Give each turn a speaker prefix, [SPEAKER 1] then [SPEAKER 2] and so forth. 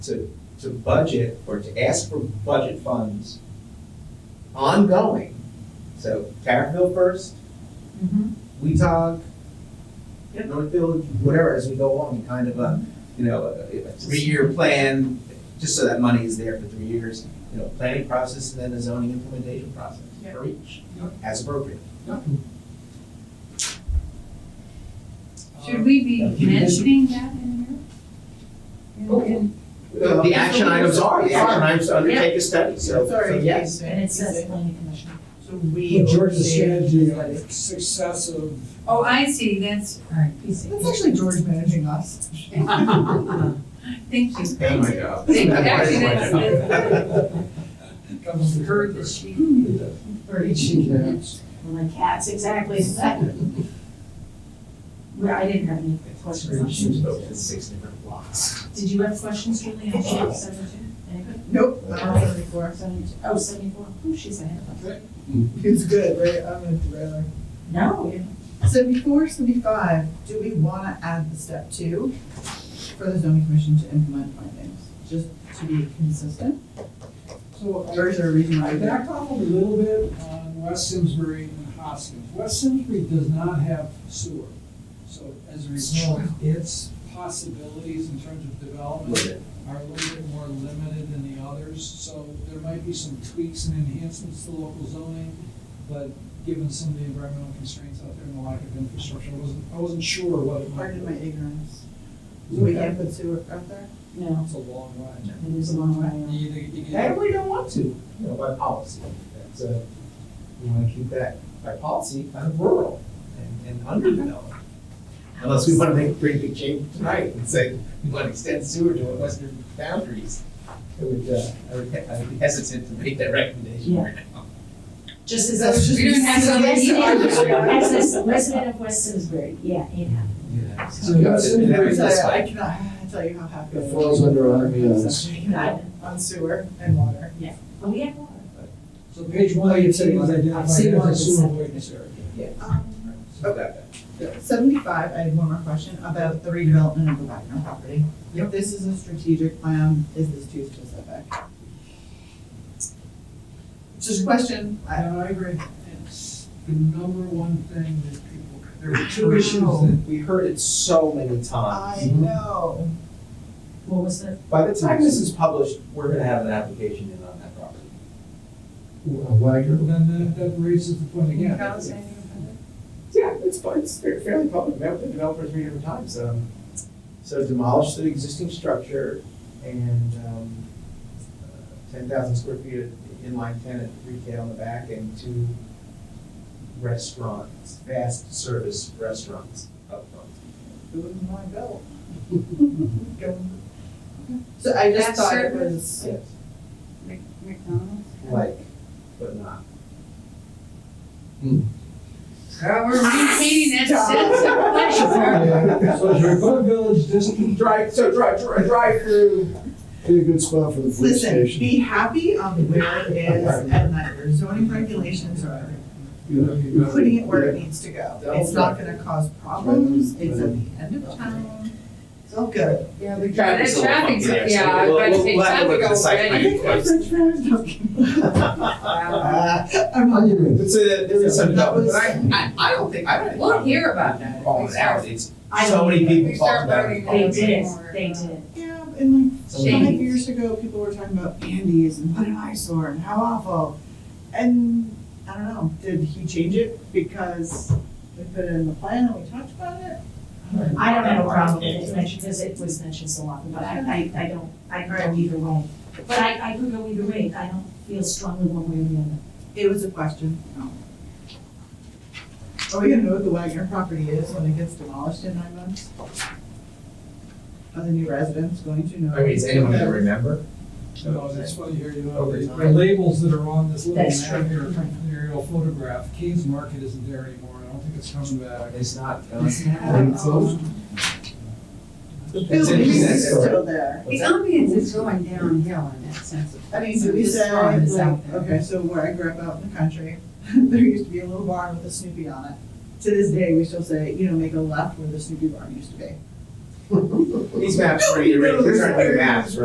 [SPEAKER 1] to, to budget or to ask for budget funds ongoing. So Tarrytville first, Weetag,
[SPEAKER 2] Mm-hmm. Yep.
[SPEAKER 1] Northfield, whatever, as we go along, kind of a, you know, a- a three-year plan, just so that money is there for three years. You know, planning process and then a zoning implementation process
[SPEAKER 2] Yep.
[SPEAKER 1] for each,
[SPEAKER 3] Yep.
[SPEAKER 1] as appropriate.
[SPEAKER 2] Should we
[SPEAKER 1] Uh,
[SPEAKER 2] be
[SPEAKER 1] can you-
[SPEAKER 2] mentioning that in here?
[SPEAKER 1] Oh.
[SPEAKER 2] In- in-
[SPEAKER 1] The the action items are, the action items to undertake a study, so, so
[SPEAKER 2] Sorry.
[SPEAKER 1] yes.
[SPEAKER 4] And it says planning commission.
[SPEAKER 3] So we.
[SPEAKER 5] Well, George's strategy
[SPEAKER 3] But
[SPEAKER 6] uh,
[SPEAKER 5] of success of.
[SPEAKER 2] Oh, I see, that's,
[SPEAKER 4] Alright, PC.
[SPEAKER 6] That's actually George managing us.
[SPEAKER 2] thank you.
[SPEAKER 1] Oh my God.
[SPEAKER 2] Thank you, actually, that's, that's-
[SPEAKER 5] Comes the
[SPEAKER 2] heard the
[SPEAKER 5] current.
[SPEAKER 2] sheep.
[SPEAKER 4] For each. My cats, exactly. Well, I didn't have any questions. on shoes.
[SPEAKER 1] It's six different blocks.
[SPEAKER 4] Did you have questions, Julie, on shoes, seventy-two? Anybody?
[SPEAKER 6] Nope,
[SPEAKER 4] Oh, seventy-four. Seventy-two. Oh, seventy-four. Oh, she's ahead of us.
[SPEAKER 6] it's good, right? I'm a thriller.
[SPEAKER 4] No, you're
[SPEAKER 6] So before seventy-five, do we wanna add the step two for the zoning commission to implement findings, just to be consistent?
[SPEAKER 5] So
[SPEAKER 6] Or is there a reason why
[SPEAKER 5] I
[SPEAKER 6] we don't?
[SPEAKER 5] backed off a little bit on West Simsbury and Hoskins. West Simsbury does not have sewer. So as a result, its possibilities in terms of development are a little bit more limited than the others. So there might be some tweaks and enhancements to local zoning, but given some of the environmental constraints out there and the lack of infrastructure, I wasn't, I wasn't sure what it might.
[SPEAKER 6] Pardon my ignorance.
[SPEAKER 5] be.
[SPEAKER 6] We can't put sewer out there?
[SPEAKER 4] No,
[SPEAKER 5] It's a long ride.
[SPEAKER 4] it is a long way.
[SPEAKER 5] You either- you
[SPEAKER 1] And
[SPEAKER 5] get-
[SPEAKER 1] we don't want to, you know, by policy. That's, uh, we want to keep that by policy kind of rural and, and underdeveloped. Unless we want to make a pretty big change tonight and say, we want to extend sewer to our western boundaries. It would, uh, I would, he- I would be hesitant to make that recommendation right now.
[SPEAKER 4] Just as.
[SPEAKER 6] That's just-
[SPEAKER 4] a-
[SPEAKER 2] We don't have so many.
[SPEAKER 4] As a resident of West Simsbury, yeah, it happened.
[SPEAKER 1] Yeah.
[SPEAKER 5] So you have
[SPEAKER 1] And that
[SPEAKER 5] Simsbury
[SPEAKER 1] was us,
[SPEAKER 6] I
[SPEAKER 1] right?
[SPEAKER 6] cannot tell you how happy. I
[SPEAKER 3] It
[SPEAKER 6] am.
[SPEAKER 3] falls under our means.
[SPEAKER 6] On sewer and water.
[SPEAKER 4] But we have water.
[SPEAKER 5] So page one, you said it was
[SPEAKER 4] I've seen
[SPEAKER 5] identified
[SPEAKER 4] one
[SPEAKER 5] as a sewer
[SPEAKER 4] that's-
[SPEAKER 5] awareness area.
[SPEAKER 6] Um,
[SPEAKER 1] Okay.
[SPEAKER 6] Seventy-five, I had one more question about the redevelopment of the Wagner property. If this is a strategic plan, is this too specific? It's Just a question, I-
[SPEAKER 5] And I agree, it's the number one thing that people, there are two issues that,
[SPEAKER 3] We heard it so many
[SPEAKER 6] I
[SPEAKER 3] times.
[SPEAKER 6] know.
[SPEAKER 4] What was the,
[SPEAKER 1] By the time this is published, we're gonna have an application in on that property.
[SPEAKER 3] Wagner.
[SPEAKER 5] then that, that raises the point again.
[SPEAKER 1] Yeah, it's, pu- it's fa- fairly public, met with the developer three different times, um, so demolish the existing structure and, um, uh, ten thousand square feet of inline tenant retail on the back and two restaurants, fast service restaurants up front.
[SPEAKER 6] Who wouldn't want to go? Go. So I just
[SPEAKER 2] That
[SPEAKER 6] thought it
[SPEAKER 2] service?
[SPEAKER 6] was,
[SPEAKER 1] Yes,
[SPEAKER 2] McDonald's?
[SPEAKER 1] like, but not.
[SPEAKER 2] Uh, We're maintaining that sense of pleasure.
[SPEAKER 5] Yeah, So is your Buck Village District,
[SPEAKER 1] Drive, so drive, drive, drive through.
[SPEAKER 3] Be a good spot for the food
[SPEAKER 6] listen,
[SPEAKER 3] station.
[SPEAKER 6] be happy on where it is and that your zoning regulations are
[SPEAKER 3] You know, you know,
[SPEAKER 6] putting it where it needs to go. It's not gonna cause problems, it's at the end of town, it's all good.
[SPEAKER 1] Yeah, the
[SPEAKER 2] traffic's a little traffic's- funky there, so yeah, I was we'll- about to we'll- say we'll have to look at the site
[SPEAKER 6] I think I'm such parents, I'm
[SPEAKER 3] yeah.
[SPEAKER 6] on
[SPEAKER 3] Onion rings.
[SPEAKER 1] It's a, there is some
[SPEAKER 6] That was-
[SPEAKER 1] development, but I, I, I don't think, I don't.
[SPEAKER 2] We'll hear about that.
[SPEAKER 1] All it out, it's,
[SPEAKER 4] I
[SPEAKER 1] so many
[SPEAKER 4] don't-
[SPEAKER 1] people
[SPEAKER 2] We
[SPEAKER 1] talk
[SPEAKER 2] start
[SPEAKER 1] about
[SPEAKER 2] learning
[SPEAKER 1] it.
[SPEAKER 4] they
[SPEAKER 2] They
[SPEAKER 4] did,
[SPEAKER 2] did.
[SPEAKER 4] they did.
[SPEAKER 6] Yeah, and like five
[SPEAKER 2] Shades.
[SPEAKER 6] years ago, people were talking about panties and what an eyesore and how awful. And I don't know, did he change it because we put it in the plan and we talked about it?
[SPEAKER 4] I don't have a problem with it mentioned, because it was mentioned so often, but I, I, I don't, I can go either way. But I, I could go either way, I don't feel strongly one way or the other.
[SPEAKER 6] It was a question. Oh. Are we gonna know what the Wagner property is when it gets demolished in nine months? Are the new residents going to know?
[SPEAKER 1] I mean, is anyone gonna remember?
[SPEAKER 5] you know, that's why you hear, you know,
[SPEAKER 1] Over
[SPEAKER 5] the the
[SPEAKER 1] time.
[SPEAKER 5] labels that are on this little
[SPEAKER 4] That's
[SPEAKER 5] map here,
[SPEAKER 4] true.
[SPEAKER 5] aerial photograph, Keynes Market isn't there anymore, I don't think it's coming back.
[SPEAKER 1] It's not. uh,
[SPEAKER 3] Are they closed?
[SPEAKER 6] The
[SPEAKER 1] It's
[SPEAKER 6] building is
[SPEAKER 1] interesting.
[SPEAKER 6] still there.
[SPEAKER 2] The ambience is going downhill in that sense of.
[SPEAKER 6] I mean,
[SPEAKER 2] place.
[SPEAKER 6] so we
[SPEAKER 2] This
[SPEAKER 6] say,
[SPEAKER 2] farm is
[SPEAKER 6] like,
[SPEAKER 2] out there.
[SPEAKER 6] okay, so where I grew up out in the country, there used to be a little barn with a Snoopy on it. To this day, we still say, you know, make a left where the Snoopy barn used to be.
[SPEAKER 1] These maps, are- these are maps,